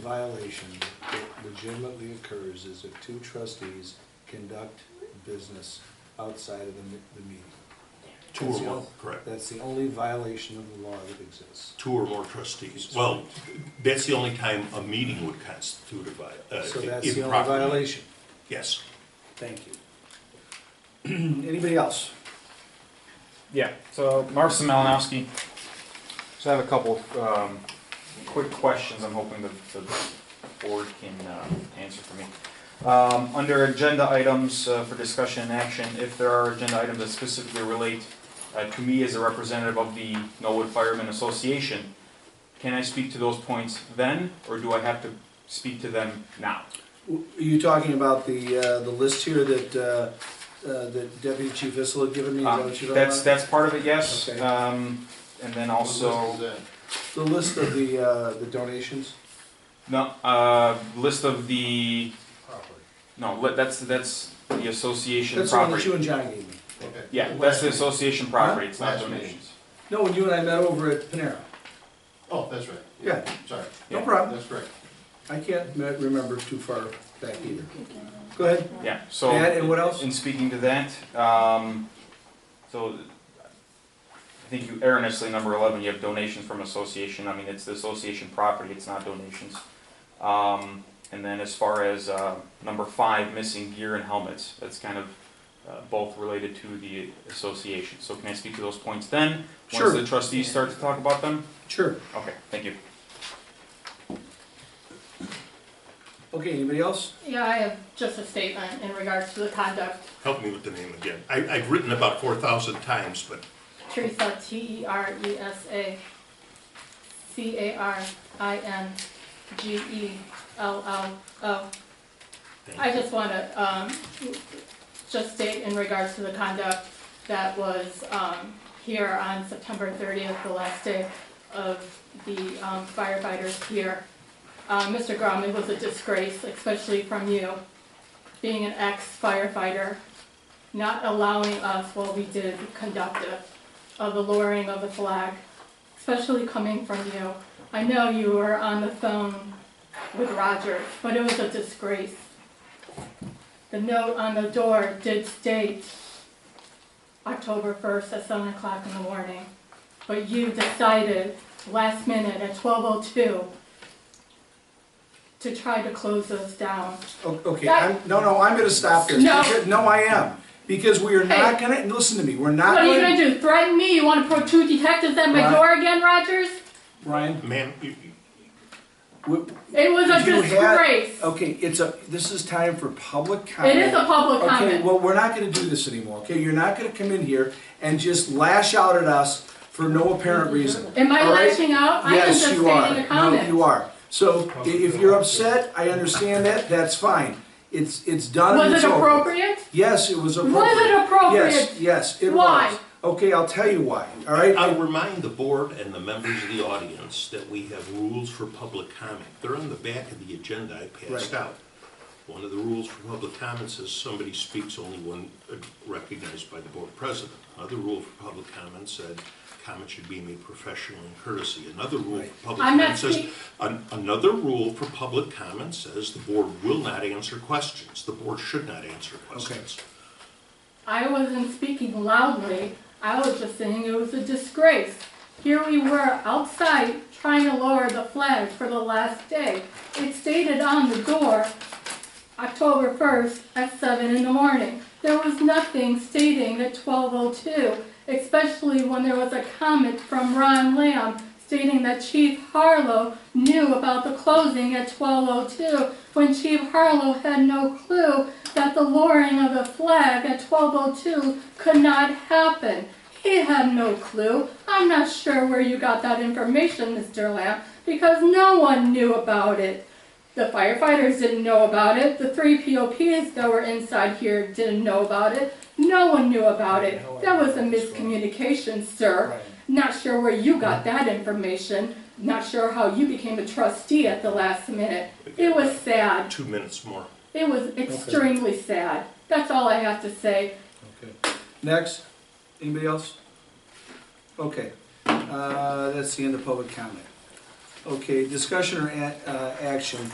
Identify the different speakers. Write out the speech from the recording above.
Speaker 1: violation that legitimately occurs is if two trustees conduct business outside of the, me- the meeting.
Speaker 2: Two
Speaker 1: That's
Speaker 2: or
Speaker 1: the
Speaker 2: more,
Speaker 1: only-
Speaker 2: correct.
Speaker 1: That's the only violation of the law that exists.
Speaker 2: Two or more trustees. Well, that's the only time a meeting would constitute a vi- uh,
Speaker 1: So that's the only
Speaker 2: improper meeting.
Speaker 1: violation.
Speaker 2: Yes.
Speaker 3: Thank you. Anybody else?
Speaker 4: Yeah, so Marv Malinowski. So I have a couple um, quick questions I'm hoping the, the board can uh, answer for me. Um, under agenda items uh, for discussion and action, if there are agenda items that specifically relate uh, to me as a representative of the Norwood Firemen Association, can I speak to those points then, or do I have to speak to them now?
Speaker 3: W- Are you talking about the, uh, the list here that, uh, uh, that Deputy Chief Vissel had given me? Is that
Speaker 4: Um,
Speaker 3: what you're talking
Speaker 4: that's
Speaker 3: about?
Speaker 4: that's part of it, yes.
Speaker 3: Okay.
Speaker 4: Um, and then also.
Speaker 3: The list of the, uh, the donations?
Speaker 4: No, uh, list of the, no, li- that's, that's the association
Speaker 3: That's the one that
Speaker 4: property.
Speaker 3: you and John gave me.
Speaker 4: Yeah, that's the association property, it's not
Speaker 5: Last meeting.
Speaker 4: donations.
Speaker 3: No, when you and I met over at Panera.
Speaker 5: Oh, that's right.
Speaker 3: Yeah,
Speaker 5: Sorry.
Speaker 3: no
Speaker 4: Yeah.
Speaker 3: problem.
Speaker 5: That's right.
Speaker 3: I can't me- remember too far back either. Go ahead.
Speaker 4: Yeah, so.
Speaker 3: That and what else?
Speaker 4: In speaking to that, um, so I think you erroneously, number eleven, you have donations from association, I mean, it's the association property, it's not donations. Um, and then as far as, uh, number five, missing gear and helmets, that's kind of, uh, both related to the association. So can I speak to those points then?
Speaker 3: Sure.
Speaker 4: Once the trustees start to talk about them?
Speaker 3: Sure.
Speaker 4: Okay, thank you.
Speaker 3: Okay, anybody else?
Speaker 6: Yeah, I have just a statement in regards to the conduct.
Speaker 2: Help me with the name again. I, I've written about four thousand times, but
Speaker 6: Teresa, T E R E S A, C A R I N G E L L O. I just want to, um, just state in regards to the conduct that was, um, here on September thirtieth, the last day of the um, firefighters here. Uh, Mr. Grom, it was a disgrace, especially from you, being an ex-firefighter, not allowing us what we did conductive of the lowering of the flag, especially coming from you. I know you were on the phone with Roger, but it was a disgrace. The note on the door did state October 1st at 7 o'clock in the morning, but you decided last minute at 12:02 to try to close us down.
Speaker 3: O- Okay,
Speaker 6: That-
Speaker 3: I'm, no, no, I'm gonna stop this.
Speaker 6: No.
Speaker 3: Because- No, I am. Because we are not gonna, listen to me, we're not
Speaker 6: What
Speaker 3: gonna.
Speaker 6: are you gonna do, threaten me? You wanna put two detectives at my
Speaker 3: Right.
Speaker 6: door again, Rogers?
Speaker 3: Ryan,
Speaker 2: ma'am, you, you-
Speaker 3: we-
Speaker 6: It was a
Speaker 3: You had-
Speaker 6: disgrace.
Speaker 3: Okay, it's a, this is time for public comment.
Speaker 6: It is a public
Speaker 3: Okay,
Speaker 6: comment.
Speaker 3: well, we're not gonna do this anymore, okay? You're not gonna come in here and just lash out at us for no apparent reason.
Speaker 6: Am I
Speaker 3: all right?
Speaker 6: lashing out? I am just
Speaker 3: Yes,
Speaker 6: stating
Speaker 3: you are.
Speaker 6: a comment.
Speaker 3: No, you are. So i- if you're upset, I understand that, that's fine. It's, it's done and
Speaker 6: Was
Speaker 3: it's
Speaker 6: it
Speaker 3: over.
Speaker 6: appropriate?
Speaker 3: Yes, it was appropriate.
Speaker 6: Was it
Speaker 3: Yes,
Speaker 6: appropriate?
Speaker 3: yes, it
Speaker 6: Why?
Speaker 3: was. Okay, I'll tell you why, all right?
Speaker 2: I'll remind the board and the members of the audience that we have rules for public comment. They're on the back of the agenda I passed
Speaker 3: Right.
Speaker 2: out. One of the rules for public comments is somebody speaks only when uh, recognized by the board president. Another rule for public comment said comments should be made professionally and courtesy. Another rule for public
Speaker 6: I'm not
Speaker 2: comment says,
Speaker 6: speak-
Speaker 2: an- another rule for public comment says the board will not answer questions. The board should not answer questions.
Speaker 6: I wasn't speaking loudly. I was just saying it was a disgrace. Here we were outside trying to lower the flag for the last day. It stated on the door, October 1st at 7 in the morning. There was nothing stating at 12:02, especially when there was a comment from Ron Lamb stating that Chief Harlow knew about the closing at 12:02, when Chief Harlow had no clue that the lowering of the flag at 12:02 could not happen. He had no clue. I'm not sure where you got that information, Mr. Lamb, because no one knew about it. The firefighters didn't know about it. The three POPs that were inside here didn't know about it. No one knew about it. That was a miscommunication, sir. Not sure where you got that information. Not sure how you became a trustee at the last minute. It was sad.
Speaker 2: Two minutes more.
Speaker 6: It was extremely sad. That's all I have to say.
Speaker 3: Okay. Next, anybody else? Okay, uh, that's the end of public comment. Okay, discussion or a- uh, action?